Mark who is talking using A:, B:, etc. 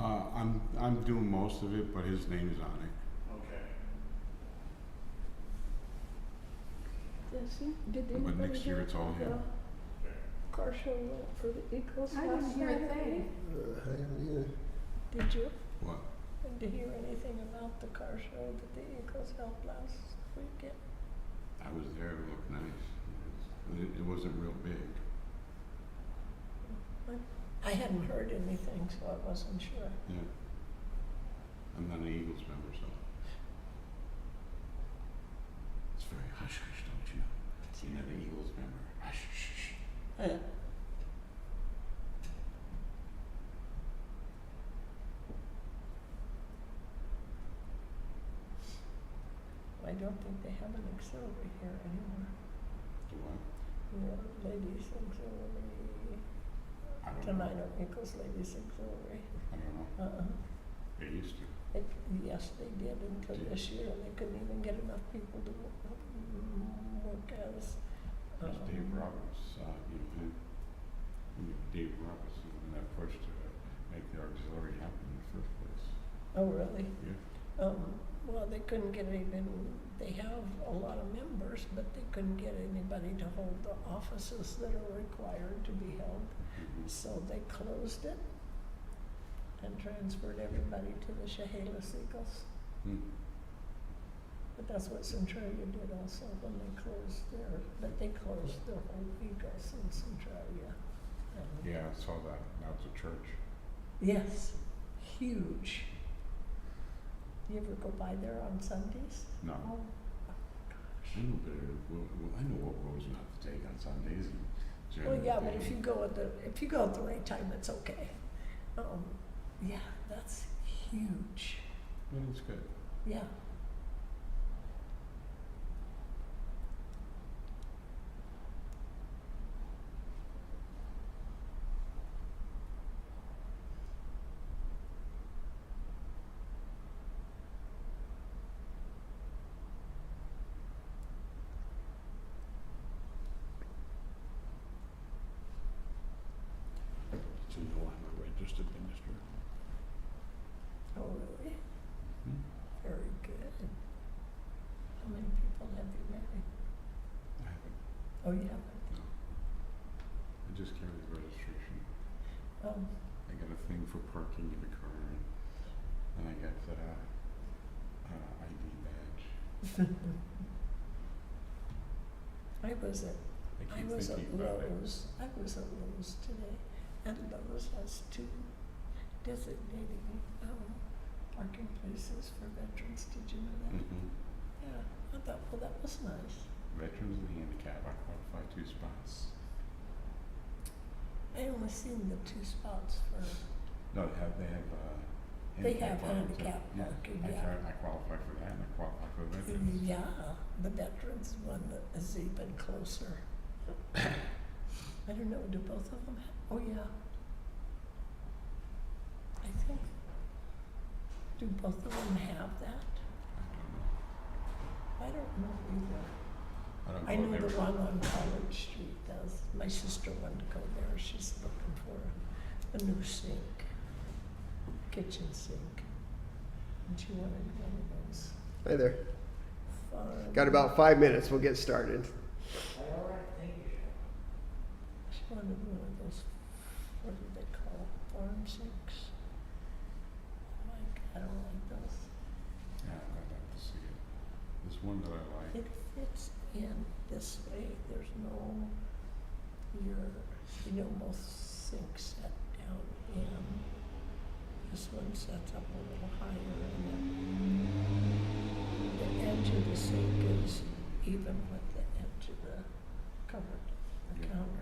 A: Uh, I'm doing most of it, but his name is on it.
B: Okay.
C: Does he, did
A: But
C: anybody
A: next year
C: hear
A: it's all
C: about
A: him.
C: the Car show uh, for the Eagles
D: I
C: last
D: didn't hear a
C: Saturday?
D: thing.
E: Uh, I haven't either.
C: Did you?
A: What?
C: Did you hear anything about the car show that the Eagles held last weekend?
A: I was there, it looked nice. It, it wasn't real big.
C: I hadn't heard anything, so I wasn't sure.
A: I'm not an Eagles member, so. It's very hush hush, don't you? You're not an Eagles member. Hush hush. hush.
C: Uh, I don't think they have an auxiliary here anymore.
A: Do what?
C: You know, ladies auxiliary.
A: I don't know.
C: Tonight, Eagles ladies auxiliary.
A: I don't know.
C: Uh-uh.
A: They used to.
C: It, yes, they did until
A: Did-
C: this year, and they couldn't even get enough people to wo- wo- work as.
A: That's
C: um,
A: Dave Roberts, uh, you know him. I mean, Dave Roberts is the one that pushed to make the auxiliary happen in the first place.
C: Oh, really?
A: Yeah.
C: Um, well, they couldn't get even, they have a lot of members, but they couldn't get anybody to hold the offices that are required to be held.
A: Mhm.
C: So they closed it and transferred everybody to the Chehalis Eagles.
A: Hmm.
C: But that's what Centralia did also when they closed their, but they closed their whole Eagles in Centralia. Um,
A: Yeah, I saw that. Now it's a church.
C: Yes, huge. You ever go by there on Sundays?
A: No.
C: Oh,
A: I know better. Well, well, I know what roads not to take on Sundays and during
C: Well,
A: the
C: yeah, but if
A: day.
C: you go at the, if you go at the right time, it's okay. Um, yeah, that's huge,
A: Well, it's good.
C: yeah.
A: Did you know I'm a registered minister?
C: Oh, really?
A: Hmm.
C: Very good. How many people have you married?
A: I haven't.
C: Oh, you haven't,
A: No. I just carried the registration.
C: um,
A: I got a thing for parking in the car, and, and I got the uh, uh, ID badge.
C: I was at
A: I
C: I
A: keep
C: was at
A: thinking about it.
C: Lowe's, I was at Lowe's today, and Lowe's has two designated, um, parking places for veterans, did you know that?
A: Mm-hmm.
C: Yeah, I thought, well, that was nice.
A: Veterans and handicap, I qualify two spots.
C: I only seen the two spots for,
A: No, they have, they have, uh,
C: They
A: handicap
C: have
A: parking too.
C: handicap
A: Yeah,
C: parking,
A: I
C: yeah. Mm,
A: try- I qualify for that, and I qualify for veterans.
C: yeah, the veterans one that is even closer. I don't know, do both of them have, oh, yeah. I think, do both of them have that?
A: I don't know.
C: I don't know either.
A: I don't
C: I
A: go
C: know
A: there.
C: the one on College Street does. My sister wanted to go there. She's looking for a new sink, kitchen sink. And she wanted one of those
E: Hi there.
C: farm.
E: Got about five minutes. We'll get started.
C: She wanted one of those, what do they call, it, farm sinks? Like, I don't like those.
A: Yeah, I'd like to see it. There's one that I like.
C: It fits in this way, there's no, your, you know, most sinks set down in. This one sets up a little higher and then the edge of the sink is even with the edge of the cupboard, the
A: Yeah.
C: counter.